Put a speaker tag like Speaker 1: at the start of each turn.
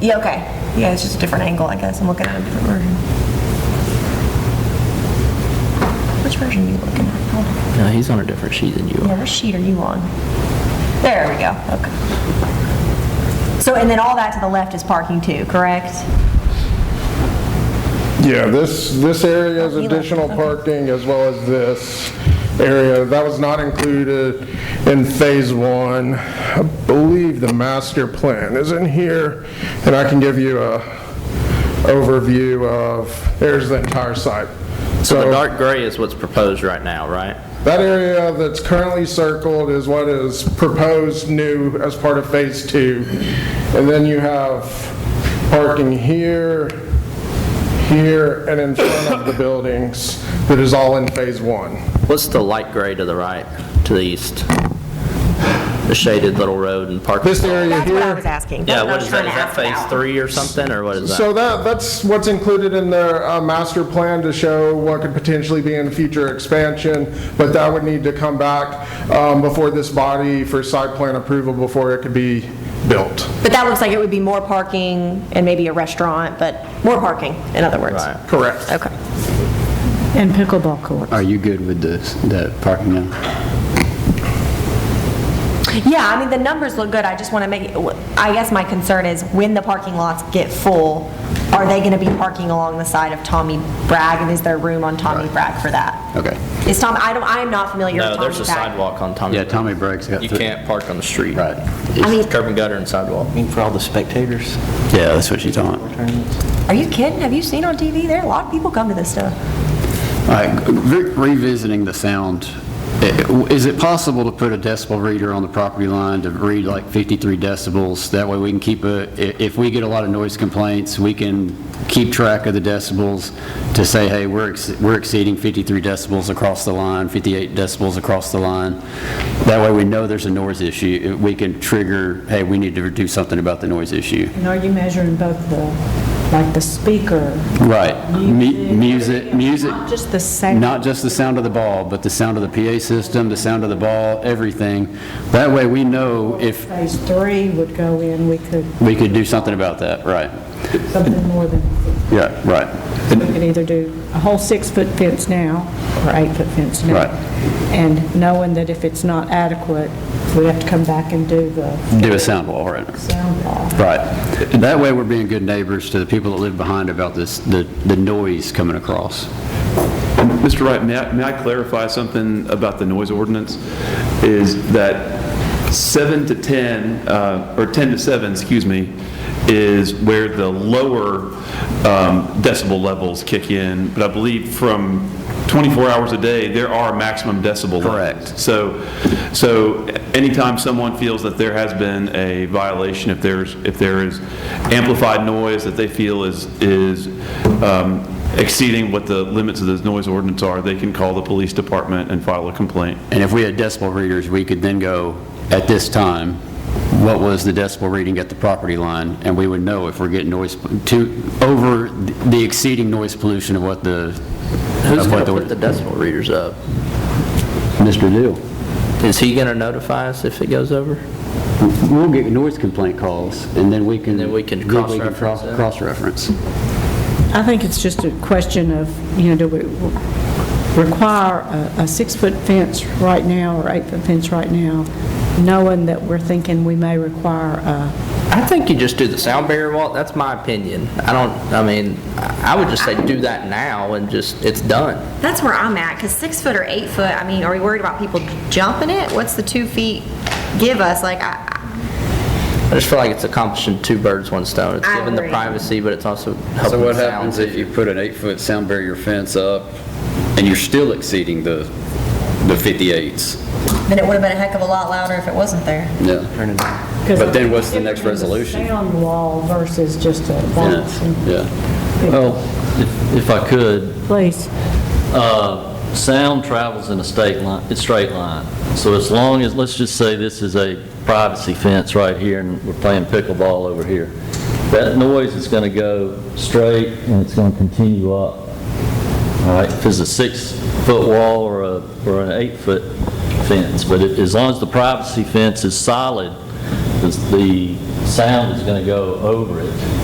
Speaker 1: Yeah, okay. Yeah, it's just a different angle, I guess. I'm looking at a different version. Which version are you looking at? Hold on.
Speaker 2: No, he's on a different sheet than you
Speaker 1: Yeah,
Speaker 2: are.
Speaker 1: what sheet are you on? There we go, okay. So, and then all that to the left is parking too, correct?
Speaker 3: Yeah, this, this area is
Speaker 1: Oh, you left.
Speaker 3: additional
Speaker 1: Okay.
Speaker 3: parking as well as this area. That was not included in Phase 1. I believe the master plan is in here, and I can give you a overview of, there's the entire site.
Speaker 2: So the dark gray is what's proposed right now, right?
Speaker 3: That area that's currently circled is what is proposed new as part of Phase 2. And then you have parking here, here, and in front of the buildings that is all in Phase 1.
Speaker 2: What's the light gray to the right, to the east? The shaded little road and parking.
Speaker 3: This area
Speaker 1: That's what I was
Speaker 3: here,
Speaker 1: asking. That's
Speaker 2: Mm-hmm.
Speaker 1: I
Speaker 2: Yeah, what
Speaker 1: was
Speaker 2: is
Speaker 1: trying to
Speaker 2: that? Is that
Speaker 1: ask
Speaker 2: phase
Speaker 1: about.
Speaker 2: three or something, or what is that?
Speaker 3: so that, that's what's included in their uh, master plan to show what could potentially be in future expansion, but that would need to come back um, before this body for site plan approval before it could be built.
Speaker 1: But that looks like it would be more parking and maybe a restaurant, but more parking, in other words.
Speaker 2: Right.
Speaker 3: Correct.
Speaker 1: Okay.
Speaker 4: And pickleball courts.
Speaker 5: Are you good with the, the parking now?
Speaker 1: Yeah, I mean, the numbers look good, I just want to make, I guess my concern is when the parking lots get full, are they going to be parking along the side of Tommy Bragg, and is there room on Tommy Bragg for that?
Speaker 5: Okay.
Speaker 1: Is Tom, I don't, I'm not familiar with
Speaker 2: No,
Speaker 1: Tommy Bragg.
Speaker 2: there's a sidewalk on Tommy.
Speaker 5: Yeah,
Speaker 2: Brook.
Speaker 5: Tommy Bragg's got
Speaker 2: You
Speaker 5: three-
Speaker 2: can't park on the street.
Speaker 5: Right.
Speaker 1: I mean,
Speaker 2: Curb and gutter and sidewalk.
Speaker 6: For all the spectators?
Speaker 5: Yeah, that's what she's on. All
Speaker 1: are you kidding? Have you seen on TV? There, a lot of people come to this stuff.
Speaker 5: right, re- revisiting the sound, i- is it possible to put a decibel reader on the property line to read like 53 decibels? That way we can keep a, i- if we get a lot of noise complaints, we can keep track of the decibels to say, hey, we're, ex- we're exceeding 53 decibels across the line, 58 decibels across the line. That way we know there's a noise issue. We can trigger, hey, we need to do something about the noise issue.
Speaker 4: And are you measuring both the, like the speaker?
Speaker 5: Right. Mu- Music, music,
Speaker 4: Not just the sound?
Speaker 5: not just the sound of the ball, but the sound of the PA system, the sound of the ball, everything. That way, we know if
Speaker 4: Phase three would go in, we could,
Speaker 5: we could do something about that, right?
Speaker 4: something more than,
Speaker 5: Yeah, right,
Speaker 4: we could either do a whole six-foot fence now, or eight-foot fence now.
Speaker 5: Right.
Speaker 4: And knowing that if it's not adequate, we have to come back and do the
Speaker 5: do a sound wall, right?
Speaker 4: sound wall.
Speaker 5: Right. That way, we're being good neighbors to the people that live behind about this, the the noise coming across.
Speaker 7: Mr. Wright, may I, may I clarify something about the noise ordinance? Is that 7 to 10, uh, or 10 to 7, excuse me, is where the lower um, decibel levels kick in, but I believe from 24 hours a day, there are maximum decibel levels.
Speaker 5: Correct.
Speaker 7: So, so anytime someone feels that there has been a violation, if there's, if there is amplified noise that they feel is, is um, exceeding what the limits of this noise ordinance are, they can call the police department and file a complaint.
Speaker 5: And if we had decibel readers, we could then go, at this time, what was the decibel reading at the property line? And we would know if we're getting noise, to, over the exceeding noise pollution of what the,
Speaker 2: Who's
Speaker 5: of
Speaker 2: gonna
Speaker 5: what the...
Speaker 2: put the decimal readers up?
Speaker 5: Mr. Deal.
Speaker 2: Is he gonna notify us if it goes over?
Speaker 5: We'll get noise complaint calls, and then we can...
Speaker 2: Then we can cross-reference
Speaker 5: cross-
Speaker 2: it.
Speaker 5: Cross-reference.
Speaker 4: I think it's just a question of, you know, do we require a a six-foot fence right now or eight-foot fence right now, knowing that we're thinking we may require a...
Speaker 2: I think you just do the sound barrier wall, that's my opinion. I don't, I mean, I I would just say do that now and just, it's done.
Speaker 1: That's where I'm at, because six foot or eight foot, I mean, are we worried about people jumping it? What's the two feet give us? Like, I,
Speaker 2: I just feel like it's accomplishing two birds, one stone. It's
Speaker 1: I
Speaker 2: giving the
Speaker 1: agree.
Speaker 2: privacy, but it's also helping
Speaker 5: So
Speaker 2: the
Speaker 5: what
Speaker 2: sound.
Speaker 5: happens if you put an eight-foot sound barrier fence up, and you're still exceeding the, the 58s?
Speaker 1: then it would have been a heck of a lot louder if it wasn't there.
Speaker 5: Yeah. But then what's the next resolution?
Speaker 4: Sound wall versus just a box.
Speaker 5: Yeah.
Speaker 6: Well, if- if I could,
Speaker 4: Please.
Speaker 6: uh, sound travels in a state line, a straight line. So as long as, let's just say this is a privacy fence right here, and we're playing pickleball over here. That noise is going to go straight, and it's going to continue up. All right, if it's a six-foot wall or a, or an eight-foot fence, but it- as long as the privacy fence is solid, the- the sound is going to go over it.